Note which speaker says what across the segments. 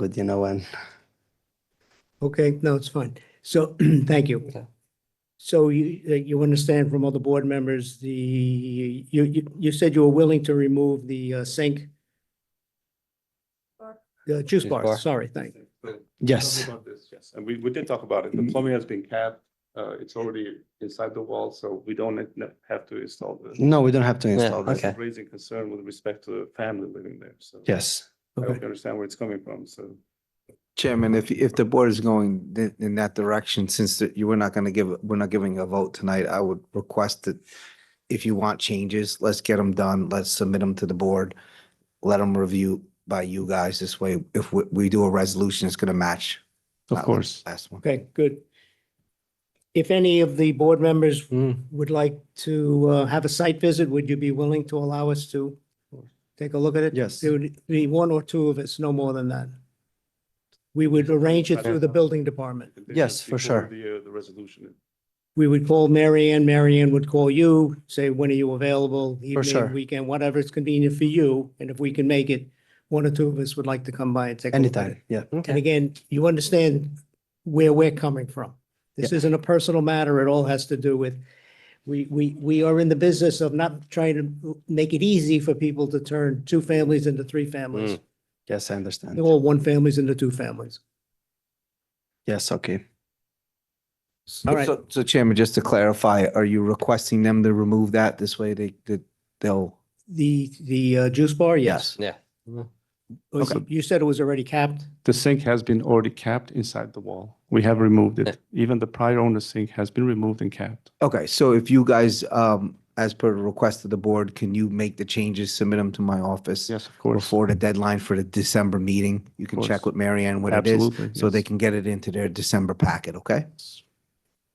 Speaker 1: good, you know, and
Speaker 2: Okay, no, it's fine. So, thank you.
Speaker 1: Okay.
Speaker 2: So you, uh, you understand from other board members, the, you, you, you said you were willing to remove the uh, sink? The juice
Speaker 1: Juice bar.
Speaker 2: bar, sorry, thank you.
Speaker 3: But
Speaker 1: yes,
Speaker 3: talk about this, Yes, and we, we did talk about it. The plumbing has been capped. Uh, it's already inside the wall, so we don't ne- have to install
Speaker 4: Mm,
Speaker 3: the.
Speaker 1: no, we don't have to install
Speaker 3: That's
Speaker 1: this.
Speaker 3: Raising concern with respect to the family living there, so.
Speaker 1: Yes,
Speaker 3: I hope
Speaker 2: Okay.
Speaker 3: you understand where it's coming from, so.
Speaker 4: Chairman, if, if the board is going th- in that direction, since that you were not going to give, we're not giving a vote tonight, I would request that if you want changes, let's get them done. Let's submit them to the board. Let them review by you guys. This way, if we, we do a resolution, it's going to match.
Speaker 3: Of
Speaker 4: that
Speaker 3: course.
Speaker 4: Last one.
Speaker 2: Okay, good. If any of the board members
Speaker 1: Mm,
Speaker 2: would like to uh, have a site visit, would you be willing to allow us to take a look at it?
Speaker 1: yes,
Speaker 2: There would be one or two of us, no more than that. We would arrange it through the building department.
Speaker 1: Yes, for
Speaker 3: Before
Speaker 1: sure.
Speaker 3: The, uh, the resolution.
Speaker 2: We would call Mary Ann, Mary Ann would call you, say, when are you available?
Speaker 1: sure.
Speaker 2: Evening, weekend, whatever is convenient for you, and if we can make it, one or two of us would like to come by and take a look at it.
Speaker 1: anytime, yeah.
Speaker 2: And again, you understand where we're coming from. This isn't a personal matter. It all has to do with, we, we, we are in the business of not trying to make it easy for people to turn two families into three families.
Speaker 1: Yes, I understand.
Speaker 2: They're all one families into two families.
Speaker 1: Yes, okay.
Speaker 2: All right.
Speaker 4: So- So Chairman, just to clarify, are you requesting them to remove that? This way they, that they'll,
Speaker 2: The, the uh, juice bar, yes.
Speaker 1: Yeah.
Speaker 2: Was-
Speaker 3: Okay.
Speaker 2: You said it was already capped?
Speaker 3: The sink has been already capped inside the wall. We have removed it. Even the prior owner's sink has been removed and capped.
Speaker 4: okay, so if you guys, um, as per the request of the board, can you make the changes, submit them to my office?
Speaker 3: Yes, of course.
Speaker 4: before the deadline for the December meeting. You can
Speaker 3: course.
Speaker 4: check with Marianne what it is,
Speaker 3: Absolutely.
Speaker 4: so they
Speaker 3: yes.
Speaker 4: can get it into their December packet, okay?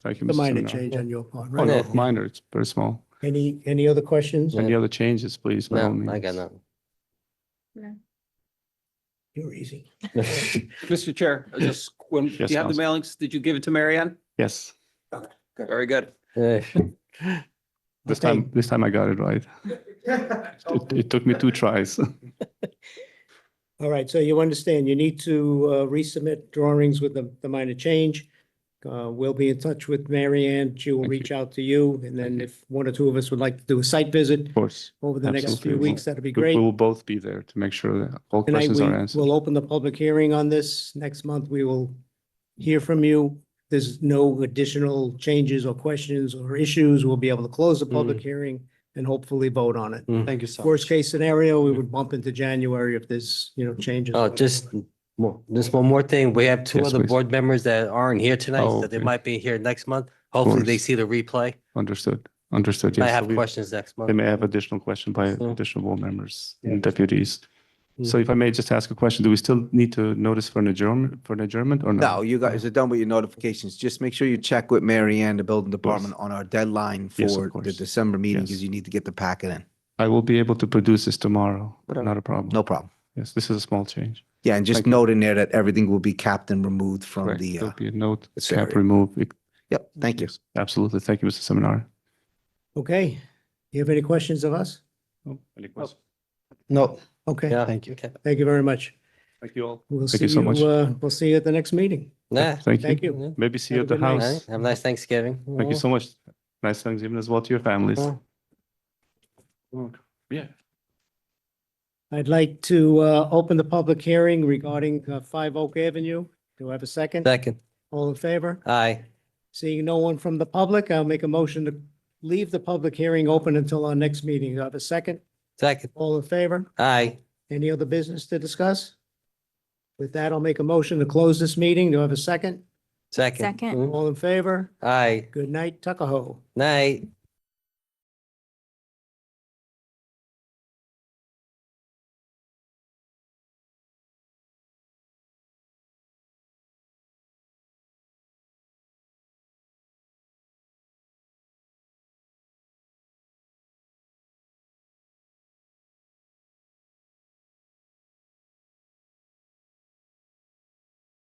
Speaker 3: Thank you,
Speaker 2: The
Speaker 3: Mr.
Speaker 2: minor
Speaker 3: Seminar.
Speaker 2: change on your part,
Speaker 3: Oh, no,
Speaker 2: right?
Speaker 3: minor, it's very small.
Speaker 2: Any, any other questions?
Speaker 3: Any other changes, please? by all means.
Speaker 2: You're easy.
Speaker 5: Mr. Chair, I just, when, do
Speaker 3: Yes,
Speaker 5: you have the mailings? Did you give it to Mary Ann?
Speaker 3: Yes,
Speaker 5: Very good.
Speaker 3: this
Speaker 2: Okay.
Speaker 3: time, this time I got it right. It, it took me two tries.
Speaker 2: All right, so you understand, you need to uh, resubmit drawings with the, the minor change. Uh, We'll be in touch with Mary Ann. She will
Speaker 3: Thank you.
Speaker 2: reach out to you, and then if one or two of us would like to do a site visit
Speaker 3: Of course.
Speaker 2: over the next
Speaker 3: Absolutely.
Speaker 2: few weeks, that'd be
Speaker 3: We-
Speaker 2: great.
Speaker 3: We will both be there to make sure that all
Speaker 2: Tonight,
Speaker 3: questions
Speaker 2: we
Speaker 3: are answered.
Speaker 2: will open the public hearing on this. Next month, we will hear from you. There's no additional changes or questions or issues. We'll be able to close the public
Speaker 3: Mm.
Speaker 2: hearing and hopefully vote on it.
Speaker 1: Thank you so much.
Speaker 2: Worst case scenario, we would bump into January if there's, you know, changes.
Speaker 6: Oh,
Speaker 3: Uh,
Speaker 6: just, mo- just one more thing. We have two
Speaker 3: Yes,
Speaker 6: other
Speaker 3: please.
Speaker 6: board members that aren't here
Speaker 3: Oh,
Speaker 6: tonight, that they
Speaker 3: okay.
Speaker 6: might be here next month. Hopefully they
Speaker 3: course.
Speaker 6: see the replay.
Speaker 3: Understood, understood.
Speaker 6: I
Speaker 3: yes. So
Speaker 6: have
Speaker 3: we-
Speaker 6: questions next
Speaker 3: They
Speaker 6: month.
Speaker 3: may have additional question by
Speaker 6: So-
Speaker 3: additional board members
Speaker 1: Yeah.
Speaker 3: and deputies. So if I may just ask a question, do we still need to notice for an adjournment, for an adjournment or
Speaker 4: No,
Speaker 3: no?
Speaker 4: you guys are done with your notifications. Just make sure you check with Mary Ann, the building department, on our deadline
Speaker 3: Yes, of
Speaker 4: for the
Speaker 3: course.
Speaker 4: December meeting,
Speaker 3: Yes.
Speaker 4: because you need to get the packet in.
Speaker 3: I will be able to produce this tomorrow,
Speaker 4: Whatever.
Speaker 3: not a problem.
Speaker 4: No problem.
Speaker 3: Yes, this is a small change.
Speaker 4: Yeah, and just
Speaker 3: Thank you.
Speaker 4: note in there that everything will be capped and removed from
Speaker 3: Correct.
Speaker 4: the,
Speaker 3: There'll
Speaker 4: uh,
Speaker 3: be a note,
Speaker 4: it's
Speaker 3: cap
Speaker 4: very-
Speaker 3: remove. It-
Speaker 4: yep, thank you.
Speaker 3: Absolutely. Thank you, Mr. Seminar.
Speaker 2: Okay, you have any questions of us?
Speaker 3: Oh, Any questions?
Speaker 1: No,
Speaker 2: Okay,
Speaker 6: Yeah.
Speaker 1: thank you.
Speaker 6: Okay.
Speaker 2: thank you very much.
Speaker 3: Thank you all.
Speaker 2: We'll
Speaker 3: Thank
Speaker 2: see
Speaker 3: you so
Speaker 2: you,
Speaker 3: much.
Speaker 2: uh, we'll see you at the next meeting.
Speaker 6: Nah.
Speaker 3: Thank
Speaker 2: Thank
Speaker 3: you.
Speaker 2: you.
Speaker 6: All
Speaker 3: Maybe see you
Speaker 2: Have
Speaker 3: at
Speaker 2: a
Speaker 3: the
Speaker 2: good night.
Speaker 6: right.
Speaker 3: house.
Speaker 6: Have a nice Thanksgiving.
Speaker 3: Thank you so much. Nice Thanksgiving as well to your families.
Speaker 2: Mm-hmm.
Speaker 6: Mm.
Speaker 3: Yeah.
Speaker 2: I'd like to uh, open the public hearing regarding uh, Five Oak Avenue. Do I have a second?
Speaker 6: Second.
Speaker 2: All in favor?
Speaker 6: Aye.
Speaker 2: Seeing no one from the public, I'll make a motion to leave the public hearing open until our next meeting. Do I have a second?
Speaker 6: Second.
Speaker 2: All in favor?
Speaker 6: Aye.
Speaker 2: Any other business to discuss? With that, I'll make a motion to close this meeting. Do I have a second?
Speaker 6: Second.
Speaker 7: Second.
Speaker 6: Mm.
Speaker 2: All in favor?
Speaker 6: Aye.
Speaker 2: Good night, Tuckahoe.
Speaker 6: Night.